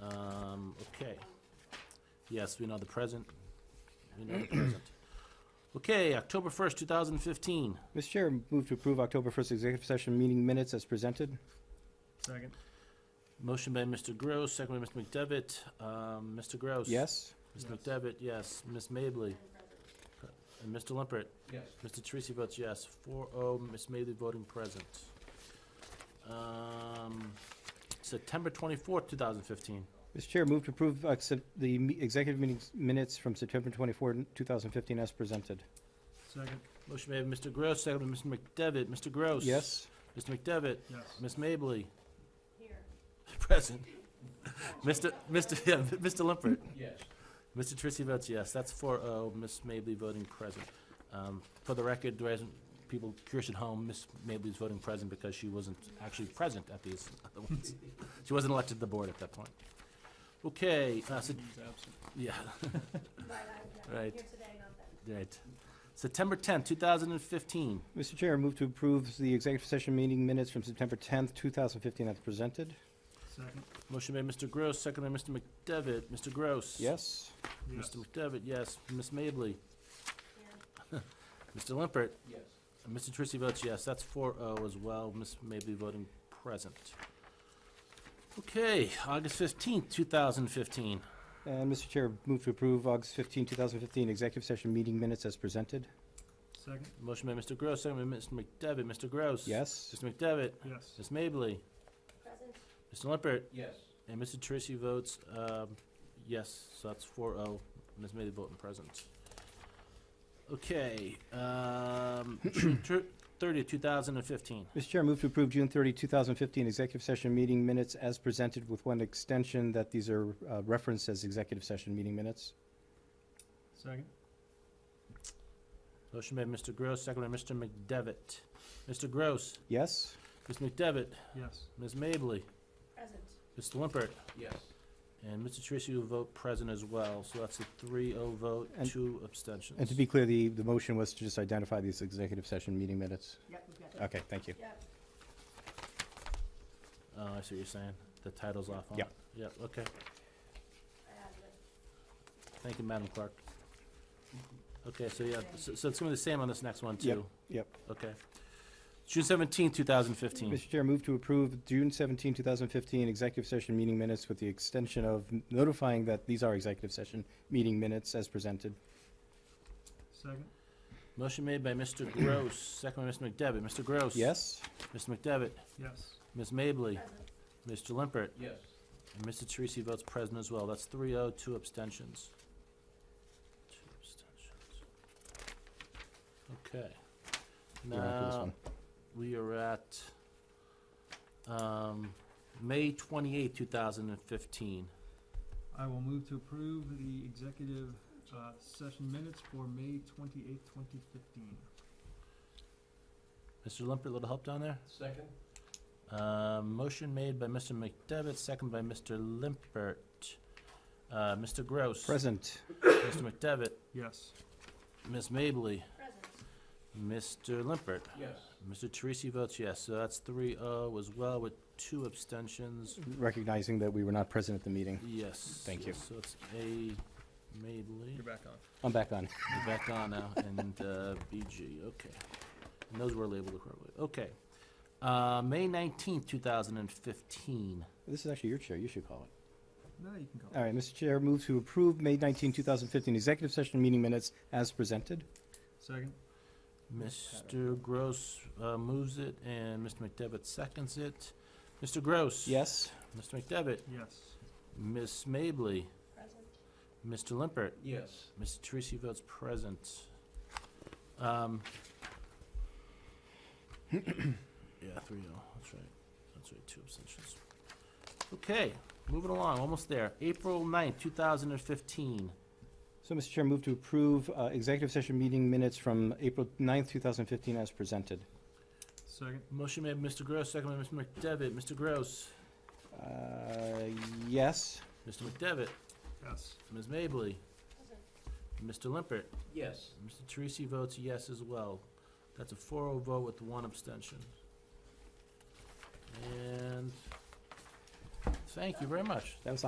Um, Yes, we know the present. We know the present. Okay, October 1st, 2015. Mr. Chair, move to approve October 1st executive session meeting minutes as presented. Second. Motion by Mr. Gross, second by Mr. McDevitt. Um, Mr. Gross? Yes? Ms. McDevitt, yes. Ms. Mably? And Mr. Limpert? Yes. Mr. Teresi votes yes, 4-0. Ms. Mably voting present. Um, September twenty-fourth, two thousand fifteen. Mr. Chair, move to approve uh, sep- the me- executive meetings minutes from September 24, 2015 as presented. Second. Motion made by Mr. Gross, seconded by Mr. McDevitt. Mr. Gross. Yes? Mr. McDevitt. Yes. Ms. Mably. Here. Present. Mr. Mr. Yeah, Mr. Limpert. Yes. Mr. Teresi votes yes. That's 4-0. Ms. Mably voting present. Um, for the record, there isn't people curious at home, Ms. Mably's voting present because she wasn't actually present at these other ones. She wasn't elected to the board at that point. Okay, uh, so, He's absent. yeah, Right. Here today, not then. right. September tenth, two thousand and fifteen. Mr. Chair, move to approve the executive session meeting minutes from September 10, 2015 as presented. Second. Motion by Mr. Gross, second by Mr. McDevitt. Mr. Gross. Yes? Yes. Mr. McDevitt, yes. Ms. Mably. Here. Mr. Limpert. Yes. And Mr. Trissy votes yes, that's 4-0 as well, Ms. Mably voting present. Okay, August fifteenth, two thousand fifteen. And Mr. Chair, move to approve August 15, 2015 executive session meeting minutes as presented. Second. Motion by Mr. Gross, second by Mr. McDevitt, Mr. Gross. Yes? Mr. McDevitt, Yes. Ms. Mably, Present. Mr. Lippert, Yes. and Mr. Trissy votes, um, yes, so that's 4-0. Ms. Mably voting present. Okay, um, June thirtieth, two thousand and fifteen. Mr. Chair, move to approve June 30, 2015 executive session meeting minutes as presented with one extension that these are uh, referenced as executive session meeting minutes. Second. Motion by Mr. Gross, second by Mr. McDevitt. Mr. Gross, Yes? Ms. McDevitt, Yes. Ms. Mably, Present. Mr. Limpert, Yes. and Mr. Tracy will vote present as well, so that's a 3-0 vote, And- two abstentions. And to be clear, the, the motion was to just identify these executive session meeting minutes. Yep, we've got Okay, thank you. Yep. Oh, I see what you're saying. The title's off on Yeah. it. Yeah, okay. I added it. Thank you, Madam Clerk. Okay, so yeah, so so it's going to be the same on this next one, too? yep. Okay. June seventeenth, two 2015. Mr. Chair, move to approve June 17, 2015 executive session meeting minutes with the extension of notifying that these are executive session meeting minutes as presented. Second. Motion made by Mr. Gross, second by Mr. McDevitt. Mr. Gross. Yes? Mr. McDevitt, Yes. Ms. Mably, Present. Mr. Limpert, Yes. And Mr. Teresi votes present as well. That's three oh, two abstentions. Two abstentions. Okay. We're on to this Now, one. we are at, um, May twenty-eighth, two thousand and fifteen. I will move to approve the executive uh, session minutes for May twenty-eighth, twenty fifteen. Mr. Limpert, a little help down there? Second. Uh, motion made by Mr. McDevitt, second by Mr. Limpert. Uh, Mr. Gross. Present. Mr. McDevitt, Yes. Ms. Mably, Present. Mr. Limpert. Yes. Mr. Teresi votes yes, so that's 3-0 as well with two abstentions. Recognizing that we were not present at the meeting. Yes. Thank you. So it's A, Mably, You're back on. I'm back on. We're back on now, and uh, BG, okay. And those were labeled correctly, okay. Uh, May nineteenth, two thousand and fifteen. This is actually your chair, you should call it. No, you can go. All right, Mr. Chair, move to approve May 19, 2015 executive session meeting minutes as presented. Second. Mr. Gross uh, moves it, and Mr. McDevitt seconds it. Mr. Gross. Yes? Mr. McDevitt, Yes. Miss Mably, Present. Mr. Limpert. Yes. Mr. Teresi votes present. Um, yeah, three oh, that's right. That's right, two abstentions. Okay, moving along, almost there. April ninth, two thousand and fifteen. So, Mr. Chair, move to approve uh, executive session meeting minutes from April 9, 2015 as presented. Second. Motion made by Mr. Gross, second by Mr. McDevitt. Mr. Gross, Uh, Yes? Mr. McDevitt, Yes. Ms. Mably, Present. Mr. Limpert. Yes. Mr. Teresi votes yes as well. That's a 4-0 vote with one abstention. And thank you very much. That was the